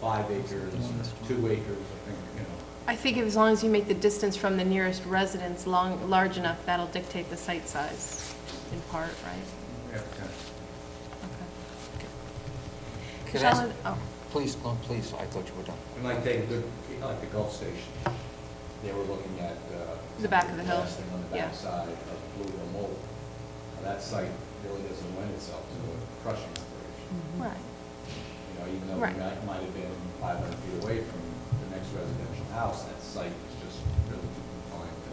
five acres, two acres, I think, you know. I think as long as you make the distance from the nearest residence long, large enough, that'll dictate the site size in part, right? yeah, okay. Okay. Can I ask- Michelle, oh, Please, no, please, I thought you were done. We might take a good, like the Gulf Station, they were looking at. uh, The back of the hill, blasting on the yeah. backside of Blue Hill Mall. Now, That site really doesn't lend itself to a crushing operation. right, You know, even though we Mm. might Right. might have been 500 feet away from the next residential house, that site is just really too confined to,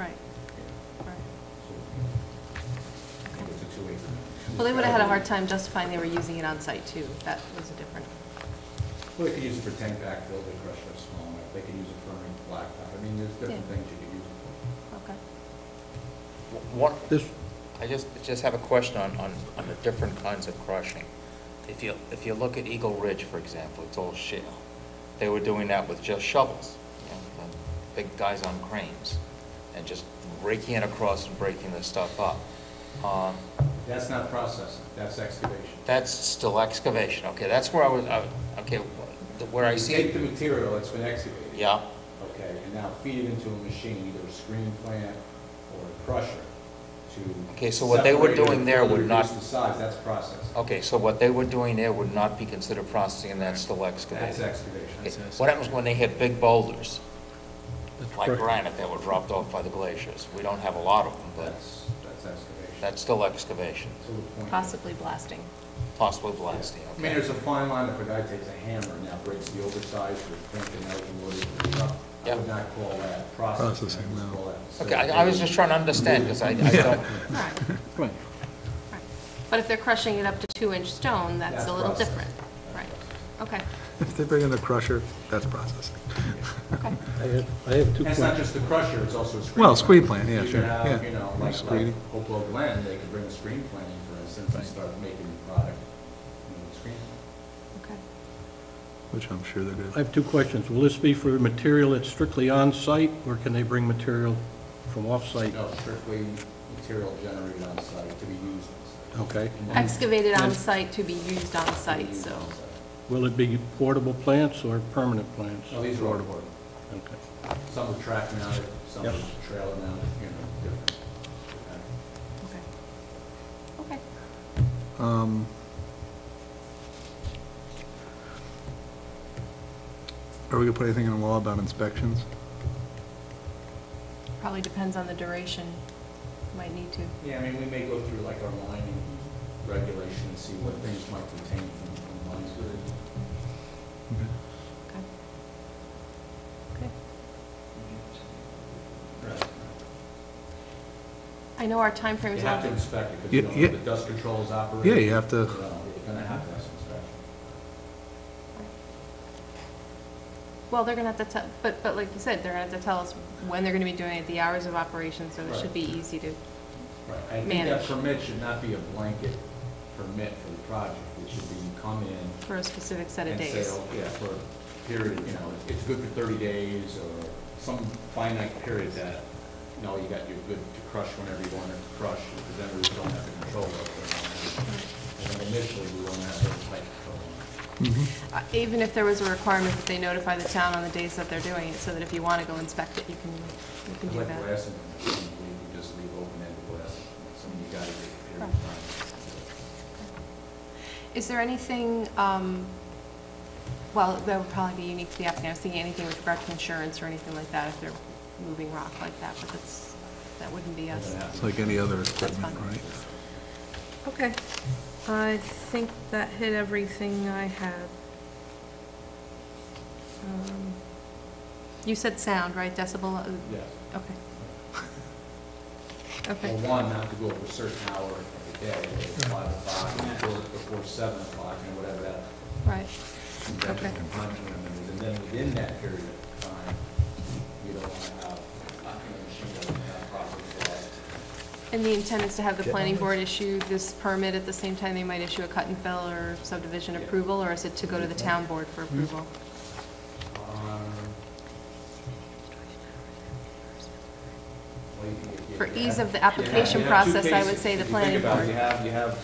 right, you know, right. sort of, I think it's a two acre. Well, they would have had a hard time justifying they were using it on site too. That was a different, Well, they could use it for tank backfill, they crush it small enough, they could use it for a blacktop, I mean, there's different Yeah. things you could use it for. okay. W- One, This, I just, just have a question on, on, on the different kinds of crushing. If you, if you look at Eagle Ridge, for example, it's all shale. They were doing that with just shovels, you know, the big guys on cranes, and just raking it across and breaking the stuff up. Um, That's not processing, that's excavation. That's still excavation, okay, that's where I was, I- okay, wh- where I You see Take the it. material that's been excavated. Yeah, Okay, and now feed it into a machine, either a screen plant or a crusher to. Okay, so what they were separate it doing there and would not- Reduce the size, that's processing. okay, so what they were doing there would not be considered processing, and that's still That's excavation. Okay, excavation. What happens when they hit big boulders, that's like correct. granite that were dropped off by the glaciers? We don't have a lot of them, but That's, that's excavation. that's still excavation, To the point. that- Possibly blasting. possibly blasting, I mean, okay? there's a fine line if a guy takes a hammer and now breaks the oversized or thinking out in order to construct. I would Yeah. not call that processing. I would Processing, no. call that Okay, I, I was just trying to understand, because I, I don't, Right, Right. right. But if they're crushing it up to two-inch stone, that's That's a little processing. different. Right, okay, If they bring in a crusher, that's processing. okay. I have, I have two And It's not questions. just the crusher, it's also a screen. Well, plant. screen plant, yeah, You sure, could have, yeah. you know, like, like Screening. Hopewell Glen, they could bring a screen plant in, for instance, and start making the product, you know, the screen. Okay. Which I'm sure they're good. I have two questions. Will this be for material that's strictly on-site, or can they bring material from off-site? No, strictly material generated on site to be used Oh. on Okay. site. Excavated on And- site to be used on To be site, used so, on site. Will it be portable plants or permanent plants? No, these are all board. Okay. Some are track mounted, some are Yep. trailer mounted, you know, different. Uh, Okay. okay. Okay, Um, Are we gonna put anything in the law about inspections? probably depends on the duration, might need to. Yeah, I mean, we may go through like our lining regulation and see what things might contain from from lines. Mm-hmm. Okay. Okay. Right. I know our time frame You is have to on, inspect it, because you Yeah, don't know if yeah. the dust control is operating. Yeah, you have to, You're gonna have to have some inspection. well, they're gonna have to tell, but, but like you said, they're gonna have to tell us when they're gonna be doing it, the hours of operation, so it Right. should be easy to, Right. I think that Manage. permit should not be a blanket permit for the project, it should be you come in for a specific set of and say, days. oh, yeah, for a period, you know, it's good for thirty days, or some finite period that, no, you got, you're good to crush whenever you want it to crush, because then we don't have the control over it. And then initially, we don't have those tight control. Uh, Even if there was a requirement that they notify the town on the days that they're doing it, so that if you wanna go inspect it, you can, you can It's do like that. blasting, you just leave open-ended blasting, something you gotta get a period of time. Is there anything, um, well, that would probably be unique to the applicant, I was thinking anything with regard to insurance or anything like that, if they're moving rock like that, but that's, that wouldn't be us. it's like any other fine. equipment, right? Okay, I think that hit everything I had. Um, You said sound, right, decibel, uh, Yes. okay. Or Okay, one, not to go over a certain hour of the day, whether it's five o'clock, and close it before seven o'clock, and whatever that. Right, that Okay. time limit is. And then within that period of time, you don't want to have, not going to machine gun, not properly blasted. and the intent is to have the planning board issue this permit at the same time they might issue a cut and fill or subdivision Yeah. Hmm? approval, or is it to go to the town board for approval? Um, well, you can get- For you ease have- of the you have- you application have two process, I would cases. say the If you planning think about it, board. You have, you have,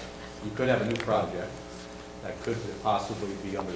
you could have a new project that could possibly be under